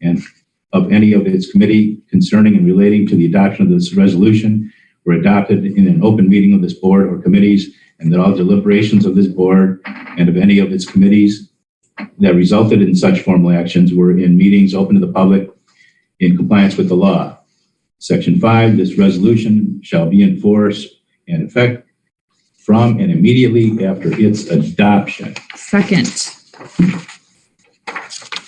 and of any of its committee concerning and relating to the adoption of this resolution were adopted in an open meeting of this board or committees, and that all deliberations of this board and of any of its committees that resulted in such formal actions were in meetings open to the public in compliance with the law. Section five, this resolution shall be in force and effect from and immediately after its adoption. Second.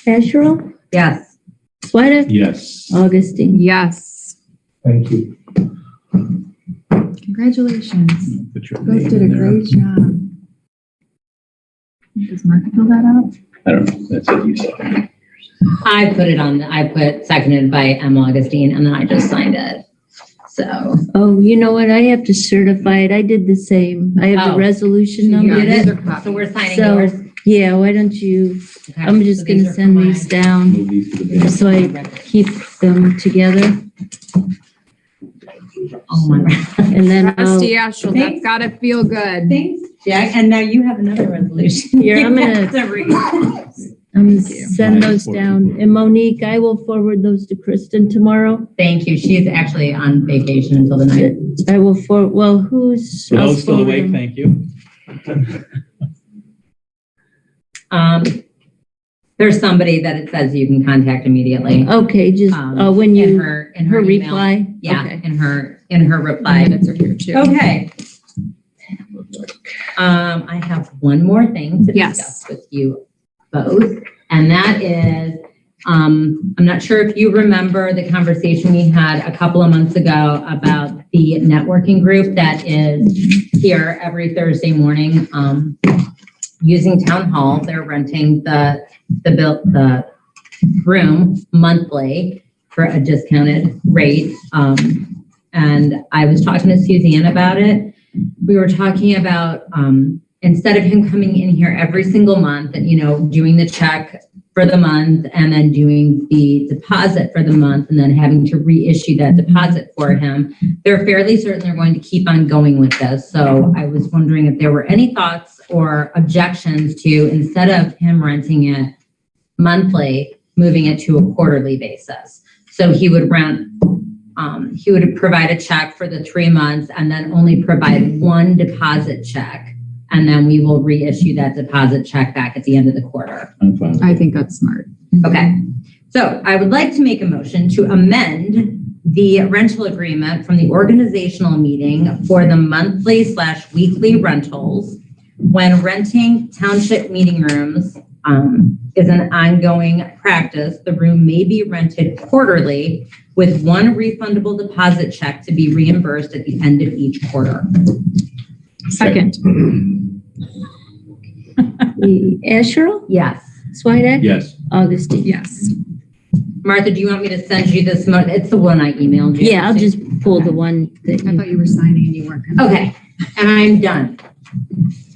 Asherle? Yes. Sweattick? Yes. Augustine? Yes. Thank you. Congratulations. Put your You guys name did a in there. great job. Does Mark fill that out? I don't know. That's what you said. I put it on, I put seconded by M. Augustine, and then I just signed it. So, Oh, you know what? I have to certify it. I did the same. I have the Oh. resolution Yeah, number. did it? These are copies. so we're signing So- yours. Yeah, why don't you, Okay, I'm so just these gonna are send for these my- down Move these to the bin. so I keep them together Oh my. and then I'll, Trustee Astral, that's Thanks. gotta feel good. Thanks, Jack. And now you have another resolution. Here, I'm gonna- I'm gonna send those down. And Monique, I will forward those to Kristen tomorrow. Thank you. She's actually on vacation until the night. I will for, well, who's? I'll forward them. thank you. Um, there's somebody that it says you can contact immediately. Okay, just, Um, uh, when In you, her, in her her email. reply? Yeah, Okay. in her, in her reply. Minutes are here too. Okay. Um, I have one more thing to Yes. discuss with you both, and that is, um, I'm not sure if you remember the conversation we had a couple of months ago about the networking group that is here every Thursday morning, um, using town hall. They're renting the, the built, the room monthly for a discounted rate. Um, and I was talking to Suzanne about it. We were talking about um, instead of him coming in here every single month and you know doing the check for the month and then doing the deposit for the month and then having to reissue that deposit for him, they're fairly certain they're going to keep on going with this. So I was wondering if there were any thoughts or objections to instead of him renting it monthly, moving it to a quarterly basis. So he would rent um, he would provide a check for the three months and then only provide one deposit check. And then we will reissue that deposit check back at the end of the quarter. I'm fine. with I it. think that's smart. Okay. So I would like to make a motion to amend the rental agreement from the organizational meeting for the monthly slash weekly rentals when renting township meeting rooms um, is an ongoing practice. The room may be rented quarterly with one refundable deposit check to be reimbursed at the end of each quarter. Second. Asherle? Yes. Sweattick? Yes. Augustine? Yes. Martha, do you want me to send you this? mo- It's the one I emailed you. Yeah, I'll just pull the one that I you, thought you were signing and you weren't. gonna- Okay. And I'm done.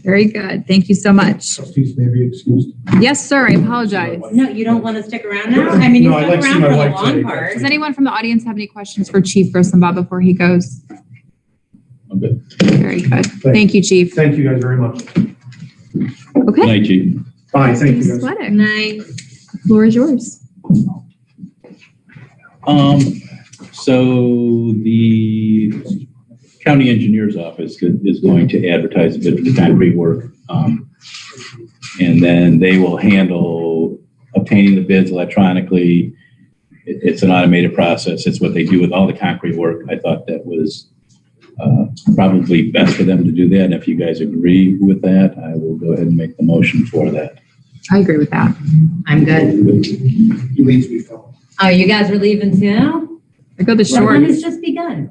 Very good. Thank you so much. Excuse me, be excused. Yes, sir. I apologize. No, you don't want to stick around now? I mean, you No, I'd stuck like to see around my for the wife long today, part. Does anyone from the audience have any questions for Chief Grissombaugh before he goes? I'm good. Very good. Thank you, Chief. Thank you guys very much. Good Okay. night, Chief. Bye, thank you Chief guys. Sweattick, Night. the floor is yours. Um, so the county engineer's office is going to advertise a bit for the concrete work. Um, and then they will handle obtaining the bids electronically. It- it's an automated process. It's what they do with all the concrete work. I thought that was, uh, probably best for them to do that. And if you guys agree with that, I will go ahead and make the motion for that. I agree with that. I'm good. He leaves me, fella. Oh, you guys are leaving too? I go the Well, short. then It's just begun.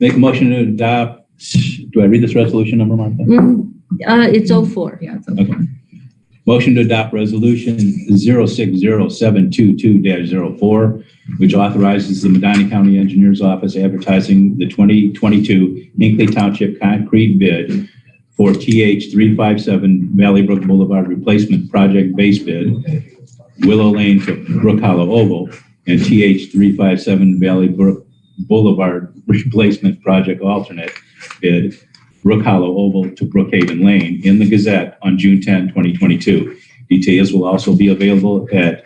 Make a motion to adopt, do I read this resolution number, Martha? Mm, uh, it's oh four. Yeah, it's Okay. okay. Motion to adopt resolution 060722-04, which authorizes the Medina County Engineers Office advertising the 2022 Hinkley Township concrete bid for TH 357 Valley Brook Boulevard Replacement Project Base Bid, Willow Lane to Brook Hollow Oval, and TH 357 Valley Brook Boulevard Replacement Project Alternate Bid Brook Hollow Oval to Brookhaven Lane in the Gazette on June 10, 2022. Details will also be available at